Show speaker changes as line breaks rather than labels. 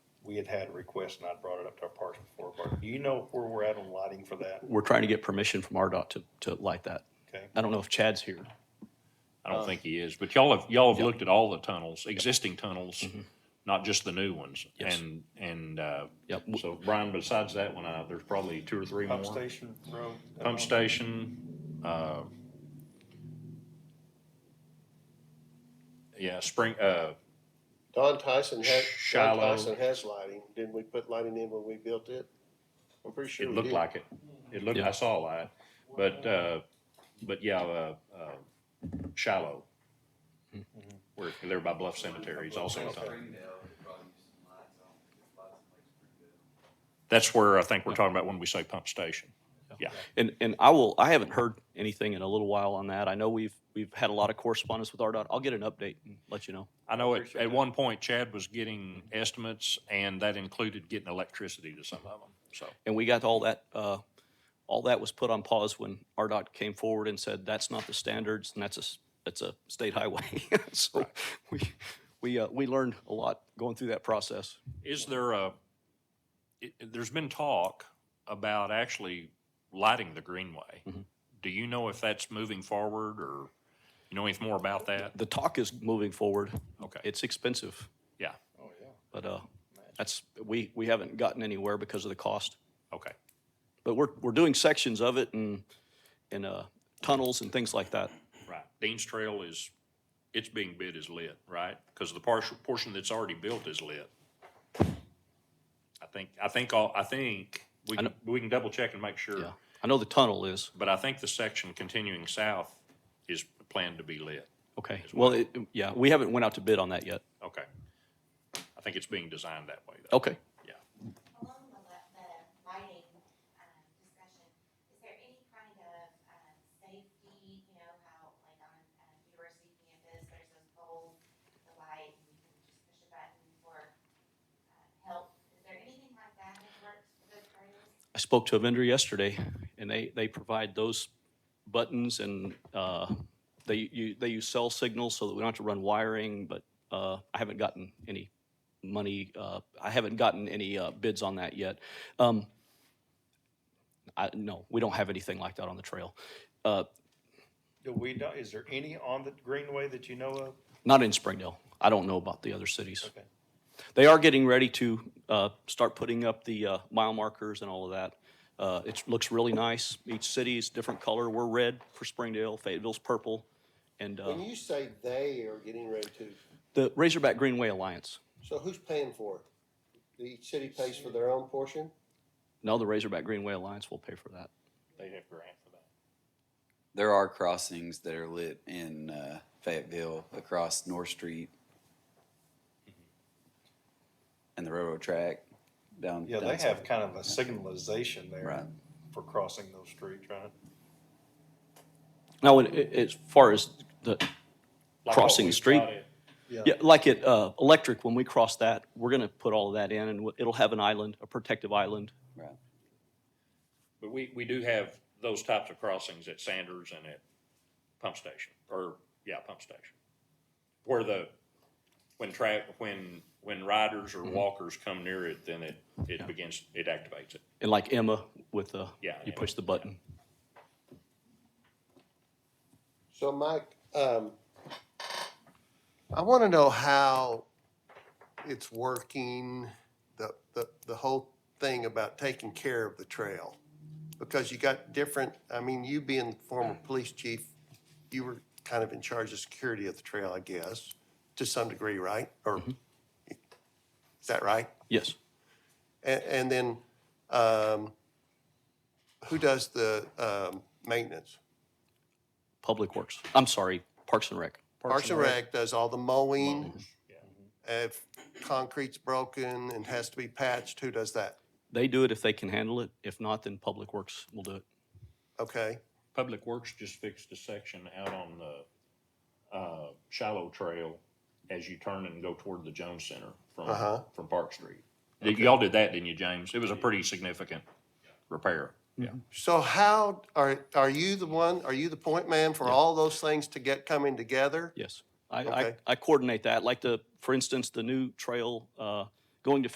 we had had a request, and I brought it up to our parks before, Bart, do you know where we're at on lighting for that?
We're trying to get permission from RDOT to, to light that.
Okay.
I don't know if Chad's here.
I don't think he is, but y'all have, y'all have looked at all the tunnels, existing tunnels, not just the new ones.
Yes.
And, and, uh,
Yep.
so Brian, besides that one, uh, there's probably two or three more.
Pump station road?
Pump station, uh, yeah, spring, uh,
Don Tyson had, Don
Shallow.
Tyson has lighting. Didn't we put lighting in when we built it? I'm pretty sure
it
we
looked
did.
like it. It looked,
Yeah.
I saw a light, but, uh, but yeah, uh, uh, shallow.
Mm-hmm.
Where, there by Bluff Cemetery is also a tunnel.
Springdale, we probably use some lights on, just lights in Lake Springdale.
That's where I think we're talking about when we say pump station.
And, and I will, I haven't heard anything in a little while on that. I know we've, we've had a lot of correspondence with RDOT. I'll get an update and let you know.
I know at, at one point Chad was getting estimates and that included getting electricity to some of them, so.
And we got all that, uh, all that was put on pause when RDOT came forward and said, that's not the standards and that's a, s- that's a state highway. So we, we, uh, we learned a lot going through that process.
Is there a, it- it- there's been talk about actually lighting the greenway.
Mhm.
Do you know if that's moving forward or you know anything more about that?
The talk is moving forward.
Okay,
It's expensive,
Oh, yeah.
but, uh, that's, we, we haven't gotten anywhere because of the cost.
okay.
But we're, we're doing sections of it and, and, uh, tunnels and things like that.
Right. Dean's Trail is, it's being bid as lit, right? Because the partial, portion that's already built is lit. I think, I think, all I think, we
I
can, we can double check and make
Yeah.
sure.
I know the tunnel is.
But I think the section continuing south is planned to be lit.
Okay. Well, it, yeah, we haven't went out to bid on that yet.
Okay. I think it's being designed that way though.
Okay.
Along the, li- the lighting, um, discussion, is there any kind of, um, safety, you know, how, like on, um, university campus, there's those poles, with the light, and you can just push a button for, uh, help? Is there anything like that that works for those areas?
I spoke to a vendor yesterday and they, they provide those buttons and, uh, they, you, they use cell signals so that we don't have to run wiring, but, uh, I haven't gotten any money, uh, I haven't gotten any, uh, bids on that yet. Um, I, no, we don't have anything like that on the trail. Uh,
Do we know, is there any on the greenway that you know of?
Not in Springdale. I don't know about the other cities.
Okay.
They are getting ready to uh, start putting up the uh, mile markers and all of that. Uh, It looks really nice. Each city's different color. We're red for Springdale, Fayetteville's purple, and uh,
When you say they are getting ready to,
the Razorback Greenway Alliance.
so who's paying for it? The city pays for their own portion?
No, the Razorback Greenway Alliance will pay for that.
They have grant for that.
There are crossings that are lit in uh, Fayetteville across North Street and the railroad track down.
Yeah,
down
they have
south.
kind of a signalization there
Right.
for crossing those streets, right?
Now, when it- as far as the
Like
crossing the
what we've
street,
got at-
yeah, like at uh, Electric, when we cross that, we're going to put all of that in, and w- it'll have an island, a protective island.
Right.
But we, we do have those types of crossings at Sanders and at Pump Station, or, yeah, Pump Station. Where the, when tra, when, when riders or walkers come near it, then it, it begins, it activates it.
And like Emma with the,
Yeah,
you
Emma,
push the button.
So Mike, um, I want to know how it's working, the, the, the whole thing about taking care of the trail. Because you got different, I mean, you being former police chief, you were kind of in charge of security of the trail, I guess, to some degree, right? Or, is that right?
Yes.
And, and then, um, who does the, um, maintenance?
Public Works. I'm sorry, Parks and Rec.
Parks and Rec does all the mowing. If concrete's broken and has to be patched, who does that?
They do it if they can handle it. If not, then Public Works will do it.
Okay,
Public Works just fixed a section out on the, uh, shallow trail as you turn and go toward the Jones Center
Uh-huh.
from, from Park Street. Y'all did that, didn't you, James? It was a pretty significant repair.
so how, are, are you the one, are you the point man for all those things to get coming together?
Yes. I, I,
Okay.
I coordinate that. Like the, for instance, the new trail, uh, going to